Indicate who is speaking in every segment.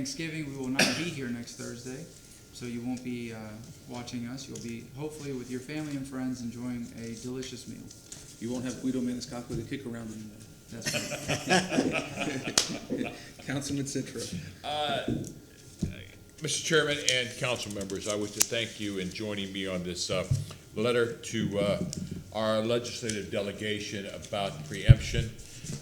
Speaker 1: Thanksgiving, we will not be here next Thursday, so you won't be uh, watching us. You'll be hopefully with your family and friends enjoying a delicious meal.
Speaker 2: You won't have Guido Maniscalco to kick around anymore.
Speaker 1: That's right.
Speaker 2: Councilman Citro.
Speaker 3: Mr. Chairman and council members, I wish to thank you in joining me on this uh, letter to uh, our legislative delegation about preemption.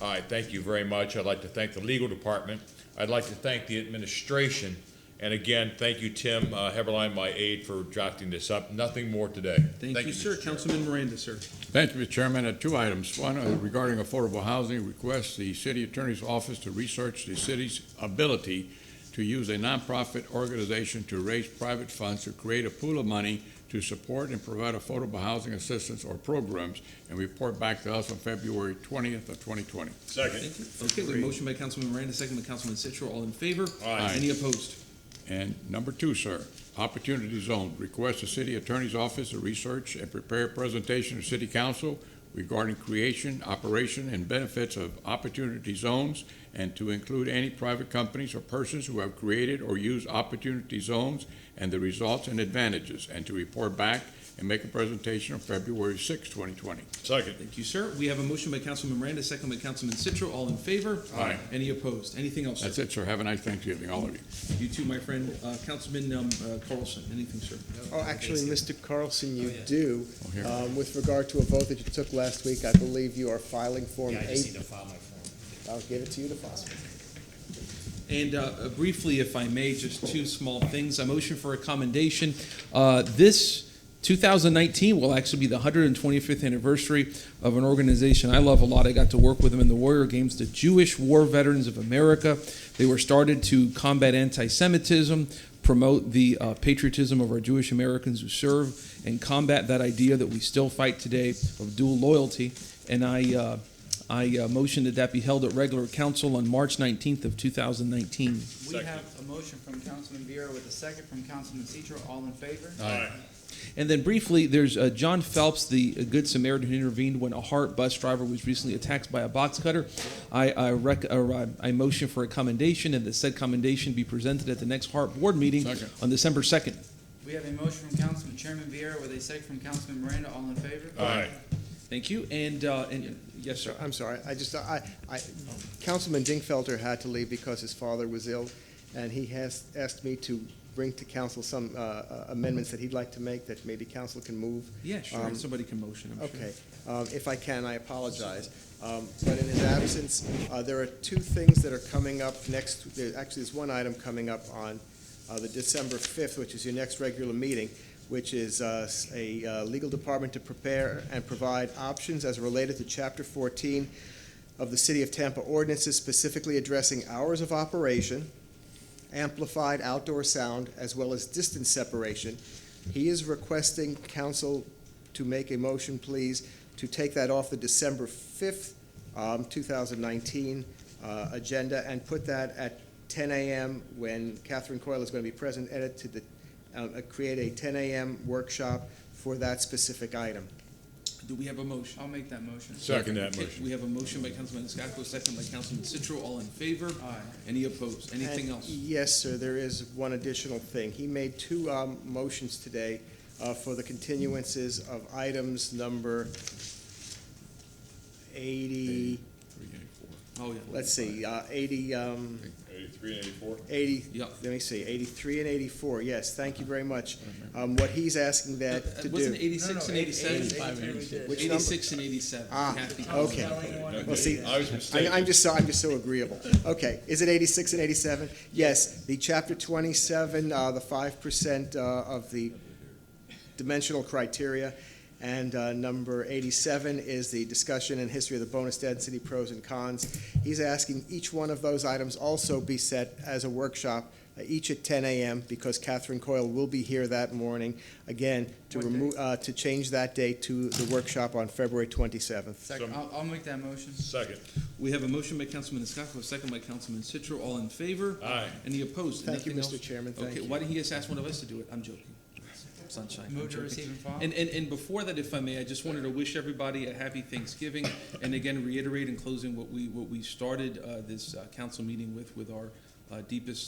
Speaker 3: I thank you very much. I'd like to thank the legal department. I'd like to thank the administration. And again, thank you, Tim uh, Heberlein, my aide, for drafting this up. Nothing more today.
Speaker 2: Thank you, sir.
Speaker 3: Mr. Chairman.
Speaker 2: Councilman Miranda, sir.
Speaker 4: Thank you, Mr. Chairman. Uh, Two items. One, uh, regarding affordable housing, request the city attorney's office to research the city's ability to use a nonprofit organization to raise private funds to create a pool of money to support and provide affordable housing assistance or programs, and report back to us on February twentieth of twenty twenty.
Speaker 3: Second.
Speaker 2: Thank you. Okay, we have a motion by Councilman Miranda, second by Councilman Citro. All in favor?
Speaker 3: Aye.
Speaker 2: Any opposed?
Speaker 4: And number two, sir, Opportunity Zone, request the city attorney's office to research and prepare a presentation to city council regarding creation, operation, and benefits of opportunity zones, and to include any private companies or persons who have created or used opportunity zones and the results and advantages, and to report back and make a presentation on February 6, 2020.
Speaker 3: Second.
Speaker 2: Thank you, sir. We have a motion by Councilman Miranda, second by Councilman Citro. All in favor?
Speaker 3: Aye.
Speaker 2: Any opposed? Anything else, sir?
Speaker 4: That's it, sir. Have a nice Thanksgiving, all of
Speaker 2: You
Speaker 4: you.
Speaker 2: too, my friend. Uh, Councilman um, uh, Carlson, anything, sir?
Speaker 5: Oh, actually, Mr. Carlson, you do.
Speaker 4: Oh, here.
Speaker 5: Um, With regard to a vote that you took last week, I believe you are filing Form
Speaker 6: Yeah, I just need
Speaker 5: 8.
Speaker 6: to file my form.
Speaker 5: I'll give it to you to file.
Speaker 2: And uh, briefly, if I may, just two small things. A motion for a commendation. Uh, This 2019 will actually be the 125th anniversary of an organization I love a lot. I got to work with them in the Warrior Games, the Jewish War Veterans of America. They were started to combat anti-Semitism, promote the uh, patriotism of our Jewish Americans who serve, and combat that idea that we still fight today of dual loyalty. And I uh, I uh, motion that that be held at regular council on March 19th of 2019.
Speaker 1: We have a motion from Councilman Bureau with a second from Councilman Citro. All in favor?
Speaker 3: Aye.
Speaker 2: And then briefly, there's uh, John Phelps, the uh, Good Samaritan who intervened when a Hart bus driver was recently attacked by a box cutter. I, I, rec- or, uh, I motion for a commendation and that said commendation be presented at the next Hart board meeting
Speaker 4: Second.
Speaker 2: on December 2nd.
Speaker 1: We have a motion from Councilman Chairman Bureau with a second from Councilman Miranda. All in favor?
Speaker 3: Aye.
Speaker 2: Thank you. And, uh, and yes, sir.
Speaker 5: I'm sorry, I just, I, I, Councilman Dingfelter had to leave because his father was ill, and he has asked me to bring to council some uh, uh, amendments that he'd like to make that maybe council can move.
Speaker 2: Yeah, sure.
Speaker 5: Um,
Speaker 2: Somebody can motion. I'm Sure.
Speaker 5: Okay, Um, if I can, I apologize. Um, But in his absence, uh, there are two things that are coming up next, there- actually, there's one item coming up on uh, the December 5th, which is your next regular meeting, which is uh, s- a uh, legal department to prepare and provide options as related to Chapter 14 of the City of Tampa ordinances specifically addressing hours of operation, amplified outdoor sound, as well as distance separation. He is requesting council to make a motion, please, to take that off the December 5th, um, 2019 uh, agenda and put that at 10 a.m. when Catherine Coyle is going to be present, edit to the, uh, uh, create a 10 a.m. workshop for that specific item.
Speaker 2: Do we have a motion?
Speaker 1: I'll make that motion.
Speaker 3: Second that
Speaker 2: Okay,
Speaker 3: motion.
Speaker 2: we have a motion by Councilman Scacco, second by Councilman Citro. All in favor?
Speaker 1: Aye.
Speaker 2: Any opposed? Anything
Speaker 5: And E.
Speaker 2: else?
Speaker 5: Yes, sir, there is one additional thing. He made two um, motions today uh, for the continuances of items number 80,
Speaker 2: Oh, yeah.
Speaker 5: let's see, uh, 80, um,
Speaker 3: Eighty-three and eighty-four?
Speaker 5: 80,
Speaker 2: Yep.
Speaker 5: let me see, 83 and 84, yes, thank you very much. Um, What he's asking
Speaker 2: Uh,
Speaker 5: that to
Speaker 2: Wasn't it
Speaker 5: do.
Speaker 2: 86 and 87?
Speaker 5: Which number?
Speaker 2: 86 and 87.
Speaker 5: Ah,
Speaker 2: Kathy.
Speaker 5: okay. Well, see,
Speaker 3: I was
Speaker 5: I-
Speaker 3: mistaken.
Speaker 5: I'm just so, I'm just so agreeable. Okay, is it 86 and 87? Yes, the Chapter 27, uh, the 5% uh, of the dimensional criteria, and uh, number 87 is the discussion and history of the bonus density, pros and cons. He's asking each one of those items also be set as a workshop, uh, each at 10 a.m., because Catherine Coyle will be here that morning, again, to
Speaker 1: What day?
Speaker 5: remove, to change that date to the workshop on February 27th.
Speaker 1: Second, I'll, I'll make that motion.
Speaker 3: Second.
Speaker 2: We have a motion by Councilman Scacco, second by Councilman Citro. All in favor?
Speaker 3: Aye.
Speaker 2: Any opposed?
Speaker 5: Thank you,
Speaker 2: Nothing
Speaker 5: Mr.
Speaker 2: else?
Speaker 5: Chairman. Thank
Speaker 2: Okay,
Speaker 5: you.
Speaker 2: why didn't he just ask one of us to do it? I'm joking. Sunshine. I'm
Speaker 1: Move to
Speaker 2: joking.
Speaker 1: receive and file.
Speaker 2: And, and, and before that, if I may, I just wanted to wish everybody a happy Thanksgiving, and again, reiterate in closing what we, what we started, uh, this, uh, council meeting with, with our, uh, deepest